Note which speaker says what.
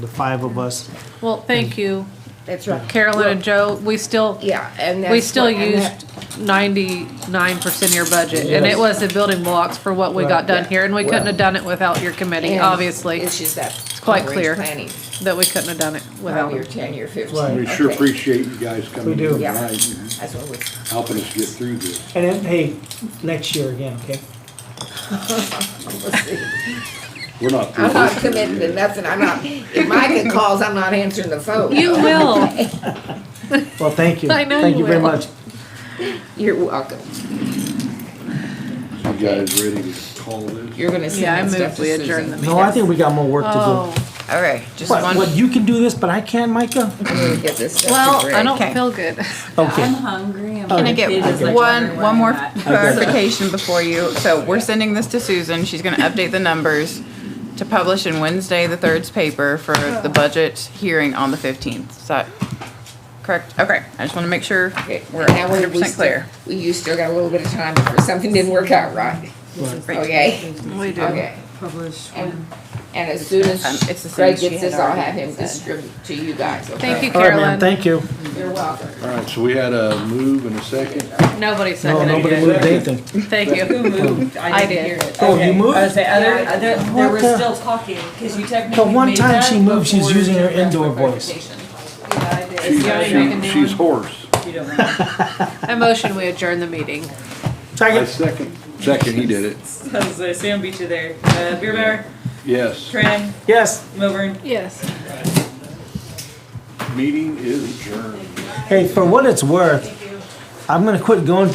Speaker 1: the five of us.
Speaker 2: Well, thank you,
Speaker 3: That's right.
Speaker 2: Carolyn and Joe. We still,
Speaker 3: Yeah, and that's.
Speaker 2: we still
Speaker 3: what- and
Speaker 2: used ninety-nine percent of your budget, and it was the building blocks for what we got done
Speaker 3: yeah.
Speaker 2: here, and we couldn't have done it without your
Speaker 3: that-
Speaker 2: committee,
Speaker 3: and
Speaker 2: obviously.
Speaker 3: It's just that. It's
Speaker 2: quite clear
Speaker 3: Planning,
Speaker 2: That we couldn't have done it without
Speaker 3: five-year,
Speaker 2: it.
Speaker 3: ten-year,
Speaker 1: Right.
Speaker 3: fifteen.
Speaker 4: We sure
Speaker 3: Okay.
Speaker 4: appreciate you guys coming
Speaker 1: We
Speaker 4: in
Speaker 1: do.
Speaker 3: Yeah.
Speaker 4: tonight and
Speaker 3: That's what we,
Speaker 4: helping us get through this.
Speaker 1: And then pay next year again, okay?
Speaker 4: We're not. through
Speaker 3: I'm not
Speaker 4: this
Speaker 3: committing to
Speaker 4: yet.
Speaker 3: nothing, I'm not, if Micah calls, I'm not answering the phone.
Speaker 2: You will.
Speaker 1: Well, thank you.
Speaker 2: I know
Speaker 1: Thank
Speaker 2: you
Speaker 1: you very
Speaker 2: will.
Speaker 1: much.
Speaker 3: You're welcome,
Speaker 4: You guys ready to call this?
Speaker 3: you're gonna
Speaker 2: Yeah, I
Speaker 3: send that
Speaker 2: moved
Speaker 3: stuff
Speaker 2: we
Speaker 3: to
Speaker 2: adjourned
Speaker 3: Susan.
Speaker 2: the-
Speaker 1: No, I think we got more work to
Speaker 2: Oh,
Speaker 3: All right,
Speaker 1: do.
Speaker 3: just
Speaker 1: What,
Speaker 3: one,
Speaker 1: what, you can do this, but I can't, Micah?
Speaker 3: I'm gonna get this stuff to
Speaker 2: well, I
Speaker 3: Greg.
Speaker 2: don't
Speaker 5: Okay.
Speaker 2: feel good.
Speaker 5: I'm
Speaker 1: Okay,
Speaker 5: hungry. I'm
Speaker 1: Can
Speaker 5: my
Speaker 1: I
Speaker 5: kid
Speaker 1: get
Speaker 5: is,
Speaker 2: one-
Speaker 5: like, wondering
Speaker 2: one
Speaker 5: where
Speaker 2: more
Speaker 5: I'm at.
Speaker 6: clarification before you, so we're sending this to Susan, she's gonna update the numbers to publish in Wednesday, the third's paper for the budget hearing on the fifteenth, is that correct? Okay, I just wanna make sure
Speaker 3: Okay,
Speaker 6: we're
Speaker 3: now we- we
Speaker 6: hundred percent
Speaker 3: still-
Speaker 6: clear.
Speaker 3: We, you still got a little bit of time if something didn't work out right, okay?
Speaker 2: We do.
Speaker 3: Okay,
Speaker 5: Publish
Speaker 3: and,
Speaker 5: when?
Speaker 3: and as soon
Speaker 6: Um, it's
Speaker 3: as
Speaker 6: the same
Speaker 3: Greg
Speaker 6: she
Speaker 3: gets
Speaker 6: had
Speaker 3: this, I'll
Speaker 6: already
Speaker 3: have him
Speaker 6: said.
Speaker 3: distribute to you guys, okay?
Speaker 2: Thank you,
Speaker 1: all right, ma'am,
Speaker 2: Carolyn.
Speaker 1: thank you.
Speaker 3: You're welcome.
Speaker 4: All right, so we had a move and a second.
Speaker 2: Nobody
Speaker 1: No,
Speaker 2: seconded
Speaker 1: nobody
Speaker 2: it.
Speaker 1: moved anything.
Speaker 2: Thank
Speaker 5: Who
Speaker 2: you.
Speaker 5: moved?
Speaker 2: I
Speaker 5: I didn't
Speaker 2: did.
Speaker 5: hear it.
Speaker 1: Oh, you
Speaker 5: I was
Speaker 1: moved?
Speaker 5: say, other, other, there
Speaker 1: What
Speaker 5: was
Speaker 1: the-
Speaker 5: still talking, because you
Speaker 1: The
Speaker 5: technically.
Speaker 1: one
Speaker 5: made
Speaker 1: time
Speaker 5: that
Speaker 1: she moved, she's
Speaker 5: before
Speaker 1: using her
Speaker 5: Jennifer asked for
Speaker 1: indoor voice.
Speaker 5: clarification.
Speaker 2: Yeah, I did. You already making
Speaker 4: She-
Speaker 2: new
Speaker 4: She's
Speaker 2: one?
Speaker 4: hoarse.
Speaker 5: You don't know.
Speaker 2: I motion we adjourn the meeting.
Speaker 4: I
Speaker 1: Second,
Speaker 4: second. Second, he did it.
Speaker 5: So, so Sam beat you there. Uh, Beer Bear,
Speaker 4: Yes.
Speaker 5: Tran,
Speaker 1: yes.
Speaker 5: Milburn.
Speaker 2: Yes.
Speaker 4: Meeting is adjourned.
Speaker 1: Hey, for what it's worth, I'm gonna quit going